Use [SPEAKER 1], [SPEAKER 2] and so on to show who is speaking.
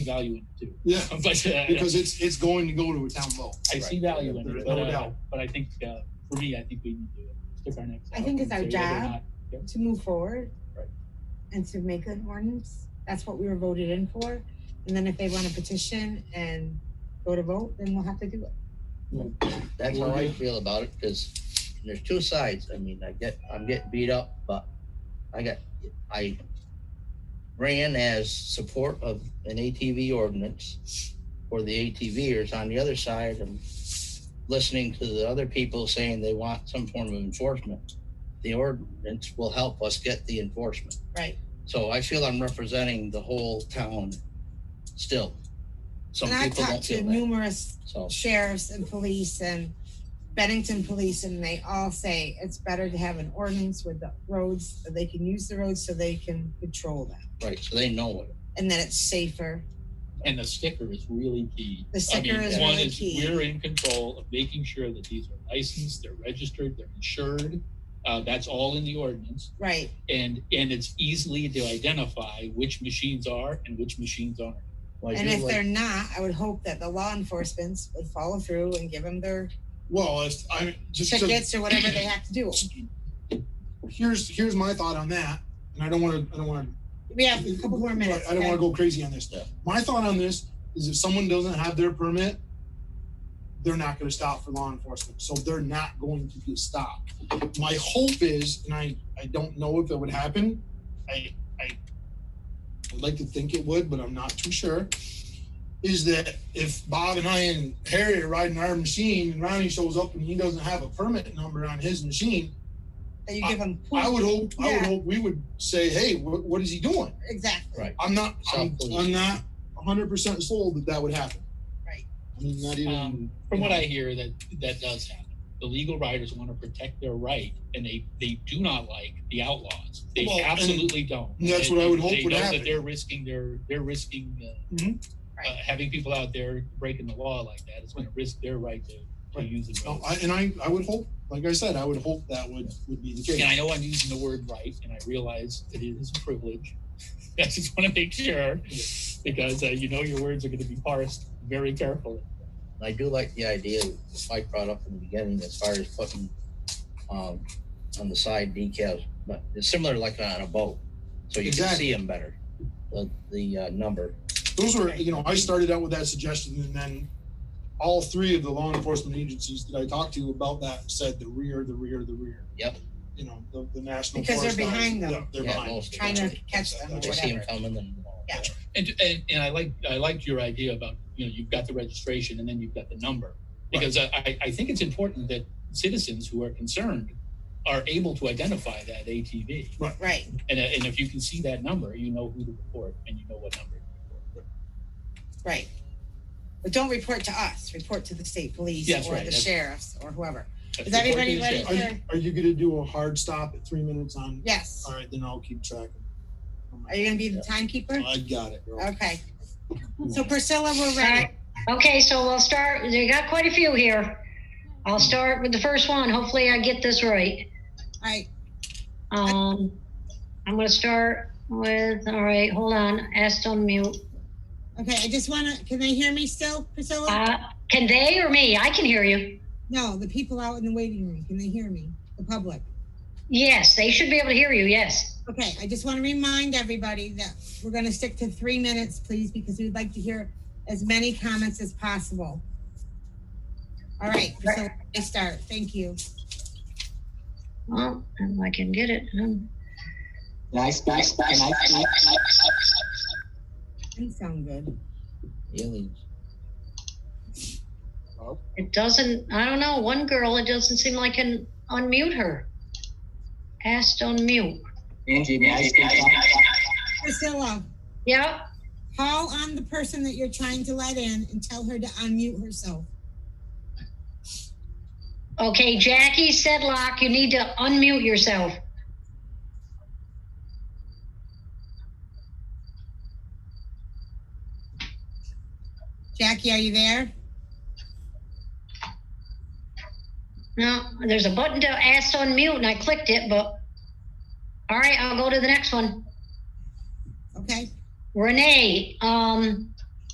[SPEAKER 1] value in it too.
[SPEAKER 2] Yeah,
[SPEAKER 1] But uh,
[SPEAKER 2] because it's, it's going to go to a town vote.
[SPEAKER 1] I see value in
[SPEAKER 2] There's
[SPEAKER 1] it,
[SPEAKER 2] no
[SPEAKER 1] but, uh,
[SPEAKER 2] doubt.
[SPEAKER 1] but I think, uh, for me, I think we need to stick our necks out.
[SPEAKER 3] I think it's
[SPEAKER 1] and
[SPEAKER 3] our
[SPEAKER 1] say whether or
[SPEAKER 3] job.
[SPEAKER 1] not-
[SPEAKER 3] to move forward.
[SPEAKER 1] Right.
[SPEAKER 3] And to make an ordinance, that's what we were voted in for, and then if they want a petition and go to vote, then we'll have to do it.
[SPEAKER 4] That's how I feel about it, because there's two sides. I mean, I get, I'm getting beat up, but I got, I ran as support of an ATV ordinance for the ATVers. On the other side, I'm listening to the other people saying they want some form of enforcement. The ordinance will help us get the enforcement.
[SPEAKER 3] Right.
[SPEAKER 4] So I feel I'm representing the whole town still. Some
[SPEAKER 3] And I've
[SPEAKER 4] people
[SPEAKER 3] talked
[SPEAKER 4] don't
[SPEAKER 3] to
[SPEAKER 4] feel that,
[SPEAKER 3] numerous
[SPEAKER 4] so.
[SPEAKER 3] sheriffs and police and Bennington police, and they all say it's better to have an ordinance with the roads, so they can use the roads so they can patrol them,
[SPEAKER 4] Right, so they know it.
[SPEAKER 3] and that it's safer.
[SPEAKER 1] And the sticker is really key.
[SPEAKER 3] The sticker
[SPEAKER 1] I mean,
[SPEAKER 3] is
[SPEAKER 1] one
[SPEAKER 3] really
[SPEAKER 1] is
[SPEAKER 3] key.
[SPEAKER 1] We're in control of making sure that these are licensed, they're registered, they're insured. Uh, that's all in the ordinance
[SPEAKER 3] Right,
[SPEAKER 1] and, and it's easily to identify which machines are and which machines aren't.
[SPEAKER 4] Well, I
[SPEAKER 3] and
[SPEAKER 4] do
[SPEAKER 3] if
[SPEAKER 4] like-
[SPEAKER 3] they're not, I would hope that the law enforcement would follow through and give them their
[SPEAKER 2] Well, if, I, just, to-
[SPEAKER 3] tickets or whatever they have to do.
[SPEAKER 2] here's, here's my thought on that, and I don't wanna, I don't wanna
[SPEAKER 3] We have a couple more minutes.
[SPEAKER 2] I don't
[SPEAKER 3] okay?
[SPEAKER 2] wanna go crazy on this.
[SPEAKER 4] Yeah.
[SPEAKER 2] My thought on this is if someone doesn't have their permit, they're not gonna stop for law enforcement, so they're not going to get stopped. My hope is, and I, I don't know if it would happen, I, I would like to think it would, but I'm not too sure, is that if Bob and I and Harry are riding our machine and Ronnie shows up and he doesn't have a permit number on his machine,
[SPEAKER 3] That you give them.
[SPEAKER 2] I would hope, I would
[SPEAKER 3] Yeah.
[SPEAKER 2] hope we would say, hey, what, what is he doing?
[SPEAKER 3] Exactly.
[SPEAKER 4] Right.
[SPEAKER 2] I'm not, I'm,
[SPEAKER 4] South
[SPEAKER 2] I'm
[SPEAKER 4] Korea.
[SPEAKER 2] not hundred percent sold that that would happen.
[SPEAKER 3] Right.
[SPEAKER 2] I mean, not even.
[SPEAKER 1] Um, from what I hear, that, that does happen. The legal riders want to protect their right and they, they do not like the outlaws. They
[SPEAKER 2] Well, and
[SPEAKER 1] absolutely don't.
[SPEAKER 2] and that's what I would hope
[SPEAKER 1] They
[SPEAKER 2] would
[SPEAKER 1] know
[SPEAKER 2] happen.
[SPEAKER 1] That they're risking their, they're risking, uh,
[SPEAKER 2] Mhm.
[SPEAKER 1] uh, having people out there breaking the law like that. It's going to risk their right to, to
[SPEAKER 2] Right. Oh,
[SPEAKER 1] use the
[SPEAKER 2] no,
[SPEAKER 1] road.
[SPEAKER 2] I- and I, I would hope, like I said, I would hope that would, would be the
[SPEAKER 1] And I
[SPEAKER 2] case.
[SPEAKER 1] know I'm using the word right and I realize that it is a privilege. I just want to make sure because, uh, you know, your words are going to be parsed very carefully.
[SPEAKER 4] I do like the idea that Mike brought up in the beginning as far as putting um, on the side decals, but it's similar like on a boat, so you can see them better. The the uh, number,
[SPEAKER 2] Those were, you know, I started out with that suggestion and then all three of the law enforcement agencies that I talked to about that said the rear, the rear, the rear.
[SPEAKER 4] Yep.
[SPEAKER 2] You know, the, the national.
[SPEAKER 3] Because they're
[SPEAKER 2] forest guys,
[SPEAKER 3] behind them.
[SPEAKER 2] yeah, They're
[SPEAKER 4] Yeah,
[SPEAKER 2] behind.
[SPEAKER 4] most of
[SPEAKER 3] Trying
[SPEAKER 4] them.
[SPEAKER 3] to catch them or
[SPEAKER 4] They see them
[SPEAKER 3] whatever.
[SPEAKER 4] coming and. uh,
[SPEAKER 3] Yeah.
[SPEAKER 1] And, and, and I like, I liked your idea about, you know, you've got the registration and then you've got the number. Because I, I, I think it's important that citizens who are concerned are able to identify that ATV.
[SPEAKER 3] Right.
[SPEAKER 1] And, uh, and if you can see that number, you know who to report and you know what number to report.
[SPEAKER 3] Right. But don't report to us. Report to the state police
[SPEAKER 1] Yes,
[SPEAKER 3] or
[SPEAKER 1] right,
[SPEAKER 3] the
[SPEAKER 1] that's-
[SPEAKER 3] sheriffs or whoever.
[SPEAKER 1] That's
[SPEAKER 3] Is everybody
[SPEAKER 1] important to
[SPEAKER 3] ready?
[SPEAKER 1] share.
[SPEAKER 2] Are you, are you gonna do a hard stop at three minutes on?
[SPEAKER 3] Yes.
[SPEAKER 2] All right, then I'll keep track.
[SPEAKER 3] Are you going to be the timekeeper?
[SPEAKER 2] I got it, girl.
[SPEAKER 3] Okay. So Priscilla, we're ready.
[SPEAKER 5] Okay, so we'll start, we got quite a few here. I'll start with the first one. Hopefully I get this right.
[SPEAKER 3] All right.
[SPEAKER 5] Um, I'm gonna start with, all right, hold on, asked on mute.
[SPEAKER 3] Okay. I just want to, can they hear me still, Priscilla?
[SPEAKER 5] Uh, can they or me? I can hear you.
[SPEAKER 3] No, the people out in the waiting room, can they hear me? The public?
[SPEAKER 5] Yes, they should be able to hear you, yes.
[SPEAKER 3] Okay, I just want to remind everybody that we're going to stick to three minutes, please, because we'd like to hear as many comments as possible. All right, so I start. Thank you.
[SPEAKER 5] Well, if I can get it. um,
[SPEAKER 6] Nice, nice, nice, nice, nice, nice.
[SPEAKER 3] Didn't sound good.
[SPEAKER 4] Aliens.
[SPEAKER 5] It doesn't, I don't know, one girl, it doesn't seem like I can unmute her. Asked on mute.
[SPEAKER 6] Angie, nice, nice, nice.
[SPEAKER 3] Priscilla,
[SPEAKER 5] Yep,
[SPEAKER 3] call on the person that you're trying to let in and tell her to unmute herself.
[SPEAKER 5] Okay, Jackie Sedlock, you need to unmute yourself.
[SPEAKER 3] Jackie, are you there?
[SPEAKER 5] No, there's a button to ask to unmute and I clicked it, but. All right, I'll go to the next one.
[SPEAKER 3] Okay,
[SPEAKER 5] Renee, um,